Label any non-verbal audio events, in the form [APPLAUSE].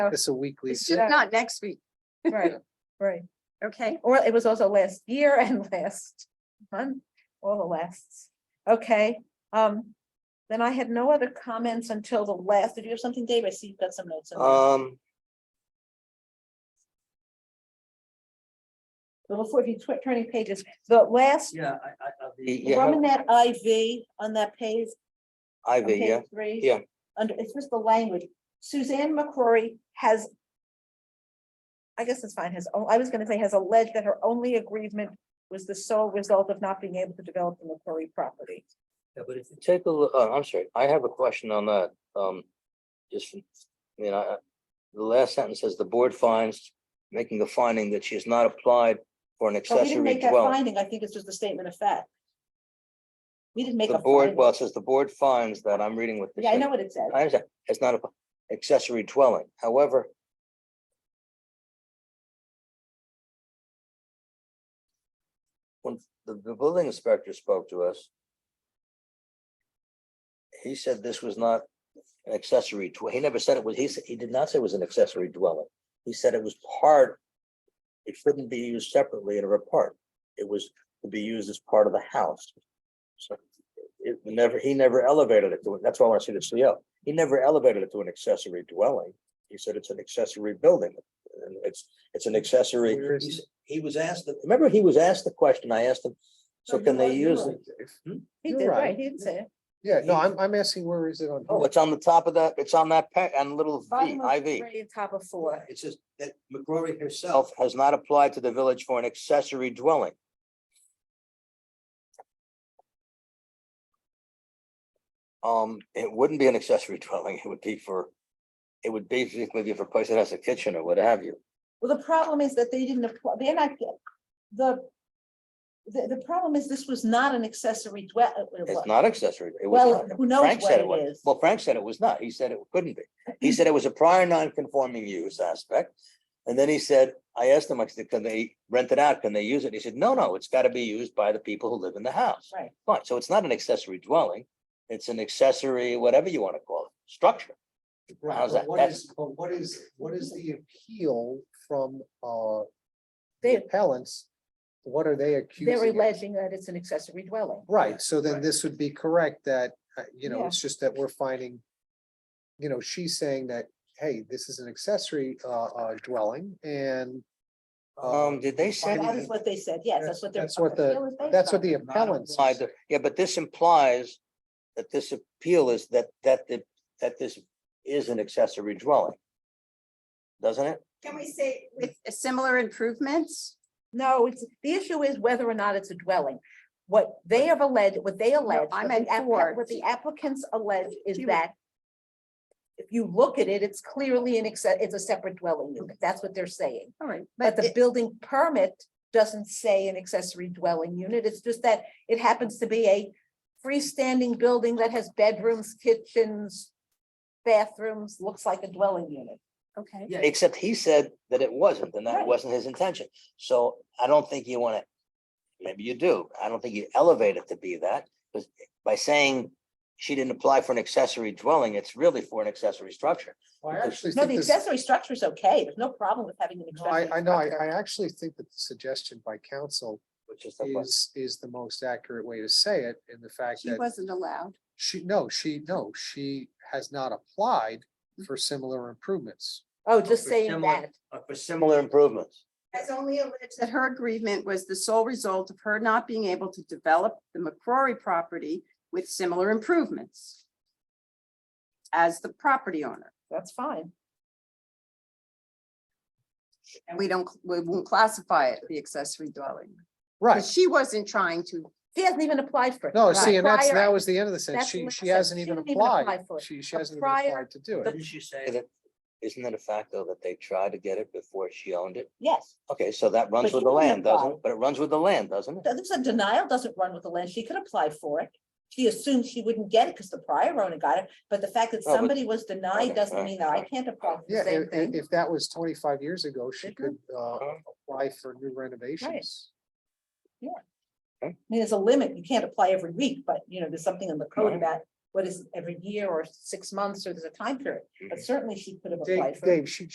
It's a weekly. It's thing. just- Not next week, [LAUGHS] Right, right. okay? Or it was also last year and [LAUGHS] last month, all the lasts. Okay, um, then I had no other comments until the last. Did you have something, Dave? I see you've got some notes. in there. Um, Well, Before, if you tw- turning pages, the last, Yeah, I, I, I'll be- y- the you one in have that IV on that page, on Ivy, yeah, page three. yeah. Under, it's just the language. Suzanne McCrory has. I guess it's fine, has, oh, I was gonna say has alleged that her only agreement was the sole result of not being able to develop the McCrory property. yeah, but it's, take a look, oh, I'm sorry, I have a question on that, um, just, I mean, I, I- the last sentence says the board finds, making the finding that she has not applied for an But Oh, we didn't accessory make that dwelling. finding, I think it's just a statement of fact. We didn't make The a board, finding. well, it says the board finds that, I'm reading what. this Yeah, I is. know what it says. I understand, it's not a accessory dwelling, however. When the, the building inspector spoke to us. He said this was not an accessory, dwe- he never said it was, he, s- he did not say it was an accessory dwelling, he said it was part. It shouldn't be used separately in or apart, it was to be used as part of the house. So it never, he never elevated it to it. That's why I want to see the CO. He never elevated it to an accessory dwelling. He said it's an accessory building. and It's, it's an accessory. Where is he it? s- He was asked, the- remember he was asked the question. I asked him, so No, can you're they right, you're use it? right, Dave. He You're did, right, right. he didn't say it. Yeah, no, I'm, I'm asking where is it on? Oh, here? it's on the top of that, it's on that pet and little V, Bottom of IV. three, Top of four. It says that McCrory herself has not applied to the village for an accessory dwelling. Um, it wouldn't be an accessory dwelling, it would be for, it would basically be for a place that has a kitchen or what have you. Well, the problem is that they didn't apply, they're not, get- the. The, the problem is this was not an accessory dwell. uh, It's what- not accessory, it Well, was who not. knows Frank what said it it was, is. Hmm. well, Frank said it was not, he said it couldn't be. He said it was a prior non-conforming use aspect. And then he said, I asked him, I said, can they rent it out? Can they use it? He said, no, no, it's gotta be used by the people who live in the house. Right. Fine, so it's not an accessory dwelling, it's an accessory, whatever you wanna call it, structure. Right, how's but that- what that's- is, but what is, what is the appeal from, uh, the They- appellants? What are they They're accusing? of? alleging that it's an accessory dwelling. Right, so then Right. this would be correct that, uh, you know, Yeah. it's just that we're finding, you know, she's saying that, hey, this is an accessory, uh, uh, dwelling and uh, Um, did they say? Finding That is what they said, yes, that's what they're. That's what the- appeal is based that's what on. the not appellants. implied that- Yeah, but this implies that this appeal is that, that, the- that this is an accessory dwelling. Doesn't it? Can we say with similar improvements? No, it's, the issue is whether or not it's a dwelling. What they have alleged, what they allege, what I the meant applica- for- what the applicants allege is She was- that. If you look at it, it's clearly an exce, it's a separate dwelling unit. That's what they're saying. All right, But but the it- building permit doesn't say an accessory dwelling unit. It's just that it happens to be a freestanding building that has bedrooms, kitchens, bathrooms, looks like a dwelling unit. okay, yeah, it's- Except he said that it wasn't, and that Right. wasn't his intention. So I don't think you wanna, maybe you do. I don't think you elevate it to be that, because by saying she didn't apply for an accessory dwelling, it's really for an accessory structure. Well, I actually No, think the this, accessory structure is okay. There's no problem with having an no, I, accessory. I know, I, structure. I actually think that the suggestion by council Which is, the point. is, is the most accurate way to say it in the fact she that wasn't allowed. She, no, she, no, she has not applied Mm. for similar improvements. Oh, just For saying similar- that. uh, for similar, similar improvements. Has only alleged that her agreement was the sole result of her not being able to develop the McCrory property with similar improvements as the property owner. That's fine. And we don't, we won't classify it the accessory dwelling. Right. Because she wasn't trying to She hasn't even applied for it. No, Right. see, and that's, Prior- that was the end of the sentence. that's She, what I she said. hasn't She even didn't even apply applied. for it. She, she A hasn't even prior- applied to do it. Didn't you say that, isn't it a fact though that they tried to get it before she owned it? Yes. Okay, so that But runs she with the didn't land, apply. doesn't it? But it runs with the land, doesn't it? Th- This is a denial doesn't run with the land. She could apply for it. She assumed she wouldn't get it because the prior owner got it, but the fact that No, but- somebody was Okay, denied doesn't alright, mean that I can't apply for Oh, Yeah, the same if, thing. if that was twenty-five years ago, she Mhm. could, uh, Uh-huh. apply for new renovations. I mean, there's a limit. You can't apply every week, but you know, there's something in the code Right. about what is every year or six months, or there's a time period. But certainly she could have applied Mm-hmm. Dave, for it. Dave, she